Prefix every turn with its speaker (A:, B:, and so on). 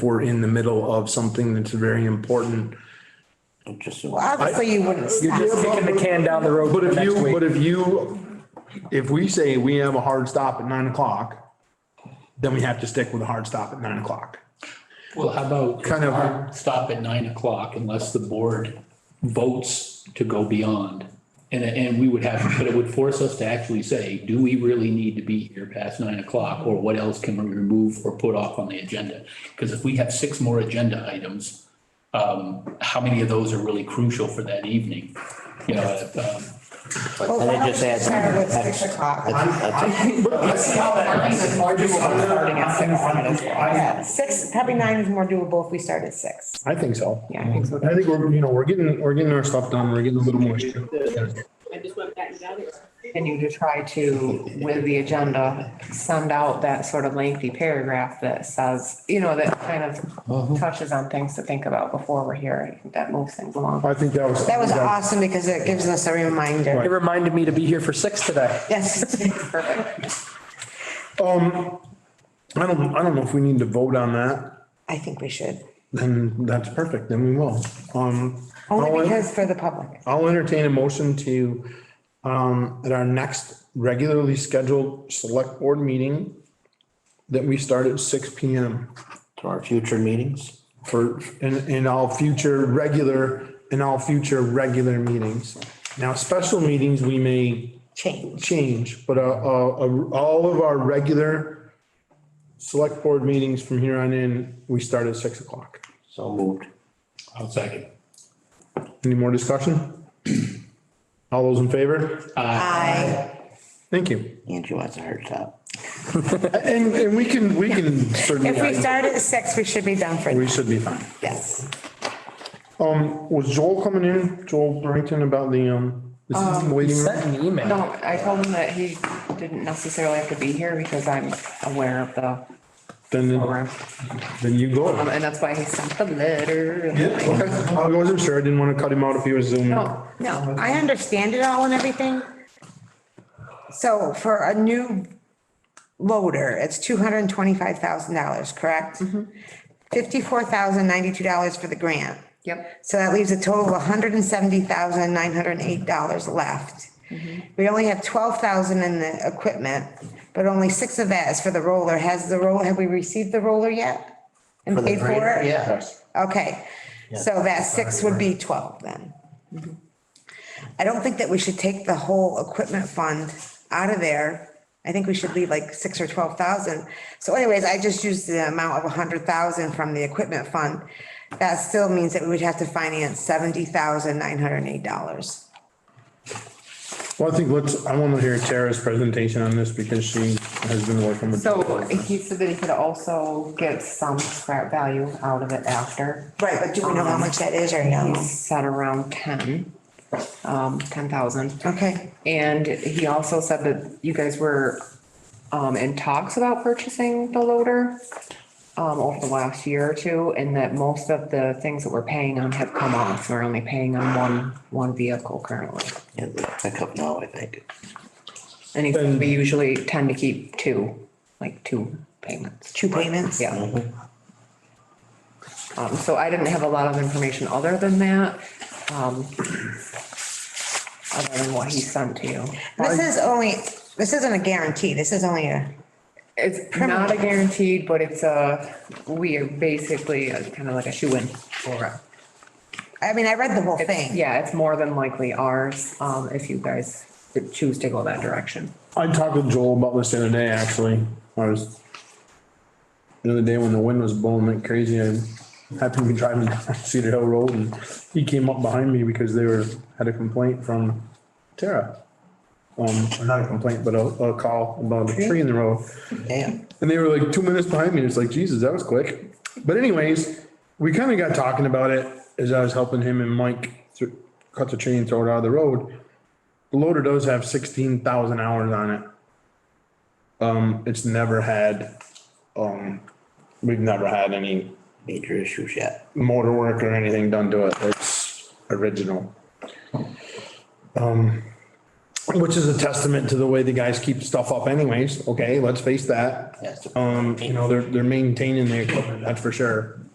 A: we're in the middle of something that's very important.
B: Just,
C: Obviously, you wouldn't
A: You're
C: stop.
A: just
D: Kicking the can down the road.
A: But if
D: next
A: you,
D: week.
A: but if you, if we say we have a hard stop at nine o'clock, then we have to stick with a hard stop at nine o'clock.
E: Well, how about
A: Kind of-
E: hard stop at nine o'clock unless the board votes to go beyond? And, and we would have, but it would force us to actually say, do we really need to be here past nine o'clock? Or what else can we remove or put off on the agenda? Because if we have six more agenda items, um, how many of those are really crucial for that evening? You know, um,
C: Well,
B: And it just adds-
C: Start with six o'clock. Yeah, six, probably nine is more doable if we start at six.
A: I think so.
C: Yeah, I think so.
A: I think we're, you know, we're getting, we're getting our stuff done. We're getting a little moisture.
F: I just went back and got it.
G: continue to try to, with the agenda, send out that sort of lengthy paragraph that says, you know, that kind of touches on things to think about before we're here. I think That moves things along.
A: I think that was.
C: That was awesome because it gives us a
D: It
C: reminder.
D: reminded me to be here for six today.
C: Yes, perfect.
A: I don't, I don't know if we need to vote on that,
C: I think we should.
A: then that's perfect, then we will. Um, I'll-
C: Only because for the public.
A: I'll entertain a motion to, um, at our next regularly scheduled select board meeting, that we start at six P M
B: to our future meetings,
A: for, in, in all future regular, in all future regular meetings. Now, special meetings, we may
C: Change.
A: change, but, uh, uh, uh, all of our regular select board meetings from here on in, we start at six o'clock.
B: so moved.
E: I'll second.
A: Any more discussion? All those in favor?
C: Aye.
A: Thank you.
B: Angie wants a hard stop.
A: And, and we can, we can certainly,
C: If we start at six, we should be done for,
A: we should be fine.
C: yes.
A: Um, was Joel coming in, Joel Brington about the, um, the waiting room?
D: Sent an email.
G: No, I told him that he didn't necessarily have to be here because I'm aware of the
A: Then,
G: program.
A: then you go.
G: Um, and that's why he sent the letter.
A: Yeah, okay. I wasn't sure. I didn't want to cut him out if he was zooming.
G: No,
C: No, I understand it all and everything. So for a new loader, it's two hundred and twenty-five thousand dollars, correct? Fifty-four thousand ninety-two dollars for the grant.
G: Yep.
C: So that leaves a total of hundred and seventy thousand nine hundred and eight dollars left. We only have twelve thousand in the equipment, but only six of that is for the roller. Has the roller, have we received the roller yet? And
B: the
C: paid for
B: grant,
C: it?
B: Yes.
C: Okay, so that six would be twelve then. I don't think that we should take the whole equipment fund out of there. I think we should leave like six or twelve thousand. So anyways, I just used the amount of a hundred thousand from the equipment fund. That still means that we would have to finance seventy thousand nine hundred and eight dollars.
A: Well, I think let's, I want to hear Tara's presentation on this because she has been working with.
G: So he said that he could also get some scrap value out of it after.
C: Right, but do we know how much that is or no?
G: He's set around ten, um, ten thousand.
C: Okay,
G: And he also said that you guys were, um, in talks about purchasing the loader, um, over the last year or two, and that most of the things that we're paying on have come off. We're only paying on one, one vehicle currently.
B: Yeah, the pickup now, I think.
G: And he said we usually tend to keep two, like two payments.
C: two payments?
G: Yeah. Um, so I didn't have a lot of information other than that, um, other than what he sent to you.
C: This is only, this isn't a guarantee. This is only a,
G: It's not a guaranteed, but it's a, we are basically kind of like a shoe in for it.
C: I mean, I read the whole thing.
G: Yeah, it's more than likely ours, um, if you guys choose to go that direction.
A: I talked with Joel about this the other day, actually. I was, the other day when the wind was blowing like crazy, I happened to be driving down Cedar Hill Road and he came up behind me because they were, had a complaint from Tara. Um, or not a complaint, but a, a call about a tree in the road.
B: Yeah.
A: And they were like two minutes behind me. It's like, Jesus, that was quick. But anyways, we kind of got talking about it as I was helping him and Mike thr- cut the tree and throw it out of the road. The loader does have sixteen thousand hours on it. Um, it's never had, um, we've never had any
B: Major issues yet.
A: motor work or anything done to it. It's original. Um, Which is a testament to the way the guys keep stuff up anyways, okay, let's face that.
B: Yes.
A: Um, you know, they're, they're maintaining the equipment, that's for sure.